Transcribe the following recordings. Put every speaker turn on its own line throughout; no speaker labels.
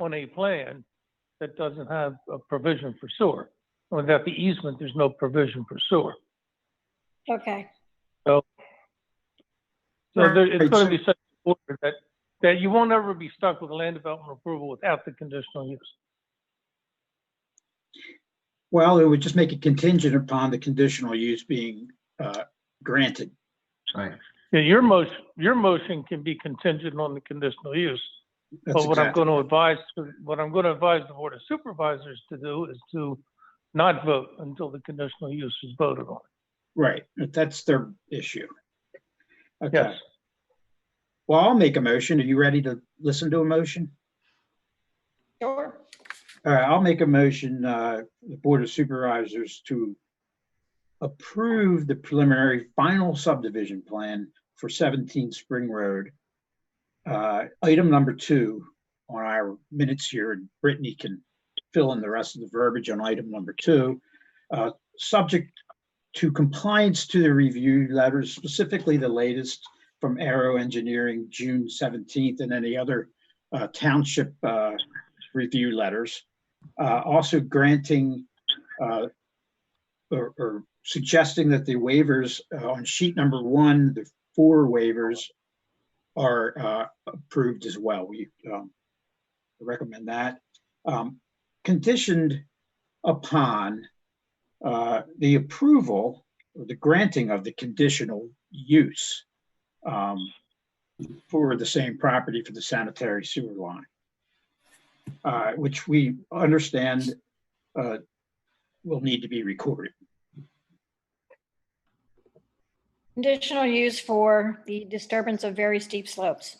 on a plan that doesn't have a provision for sewer. Without the easement, there's no provision for sewer.
Okay,
So there, it's
Right.
gonna be such an order that, that you won't ever be stuck with a land development approval without the conditional use.
Well, it would just make it contingent upon the conditional use being uh, granted.
Right.
Yeah, your motion, your motion can be contingent on the conditional use.
That's
But what I'm
exactly,
gonna advise, what I'm gonna advise the Board of Supervisors to do is to not vote until the conditional use is voted on.
right, that's their issue.
Yes.
Okay, well, I'll make a motion. Are you ready to listen to a motion?
sure.
All right, I'll make a motion, uh, the Board of Supervisors to approve the preliminary final subdivision plan for 17 Spring Road. Uh, Item number two on our minutes here, and Brittany can fill in the rest of the verbiage on item number two. Uh, Subject to compliance to the review letters, specifically the latest from Aero Engineering, June 17th, and any other uh, township uh, review letters. Uh, also granting, uh, or, or suggesting that the waivers uh, on sheet number one, the four waivers are, uh, approved as well. We, um, recommend that. Um, conditioned upon, uh, the approval, or the granting of the conditional use, um, for the same property for the sanitary sewer line uh, which we understand uh, will need to be recorded.
Conditional use for the disturbance of very steep slopes.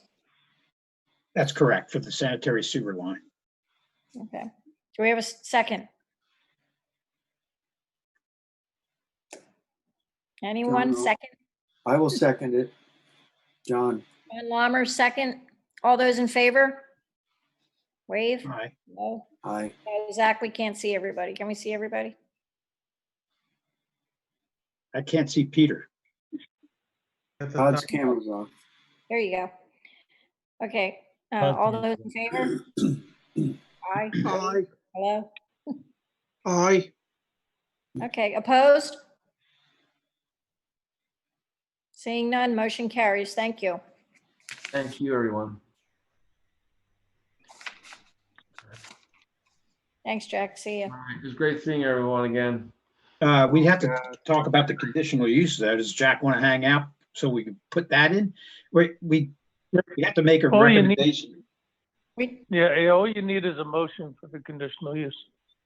That's correct for the sanitary sewer line.
Okay. Do we have a s- second? Anyone
no.
second?
I will second it. John,
John Lammer, second. All those in favor? Wave?
Aye.
No.
aye.
No, Zach, we can't see everybody. Can we see everybody?
I can't see Peter.
Todd's camera's off.
There you go. Okay, uh, all those in favor? Aye.
Aye,
Hello?
aye,
Okay, opposed? Seeing none, motion carries. Thank you.
Thank you, everyone.
Thanks, Jack. See you.
All right, It was great seeing everyone again.
Uh, We have to talk about the conditional use though. Does Jack want to hang out so we can put that in? We, we we have to make a
All you need-
recommendation.
We,
Yeah, yeah, all you need is a motion for the conditional use.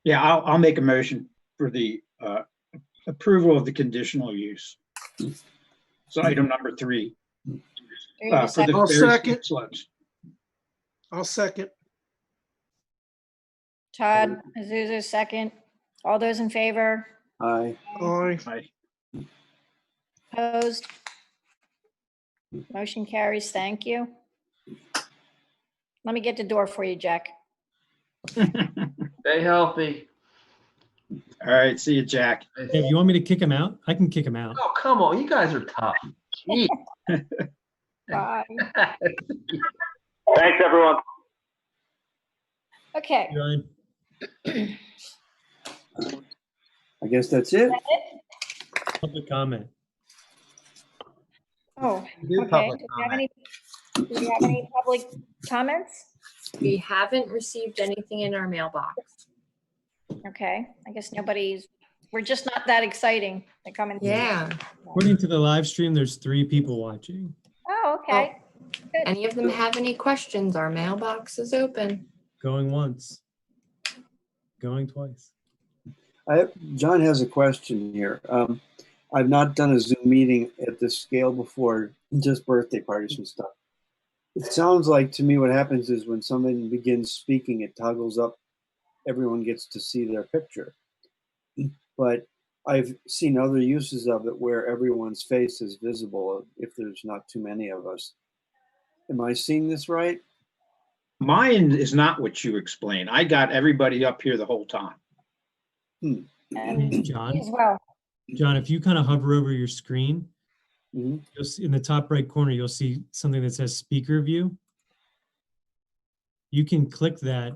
Yeah, I'll, I'll make a motion for the uh, approval of the conditional use. So item number three.
do we
uh,
have a
for the
second?
I'll
various
second.
slopes.
I'll second,
Todd, Azusa, second. All those in favor?
Aye.
aye,
Aye.
Opposed? Motion carries. Thank you. Let me get the door for you, Jack.
Stay healthy.
All right, see you, Jack.
Hey, you want me to kick him out? I can kick him out.
Oh, come on, you guys are tough. Jeez.
Bye.
Thanks, everyone.
Okay.
Ryan.
I guess that's it.
Public comment.
Oh,
Do
okay.
public
Do we have any, do we have any public comments?
We haven't received anything in our mailbox.
Okay, I guess nobody's, we're just not that exciting to come in.
According to the live stream, there's three people watching.
Oh, okay.
Any of them have any questions? Our mailbox is open.
Going once. Going twice.
I, John has a question here. Um, I've not done a Zoom meeting at this scale before, just birthday parties and stuff. It sounds like to me what happens is when someone begins speaking, it toggles up, everyone gets to see their picture. But I've seen other uses of it where everyone's face is visible if there's not too many of us. Am I seeing this right?
Mine is not what you explained. I got everybody up here the whole time. Oh.
And
John,
As well.
John, if you kind of hover over your screen,
hmm
you'll see in the top right corner, you'll see something that says speaker view. You can click that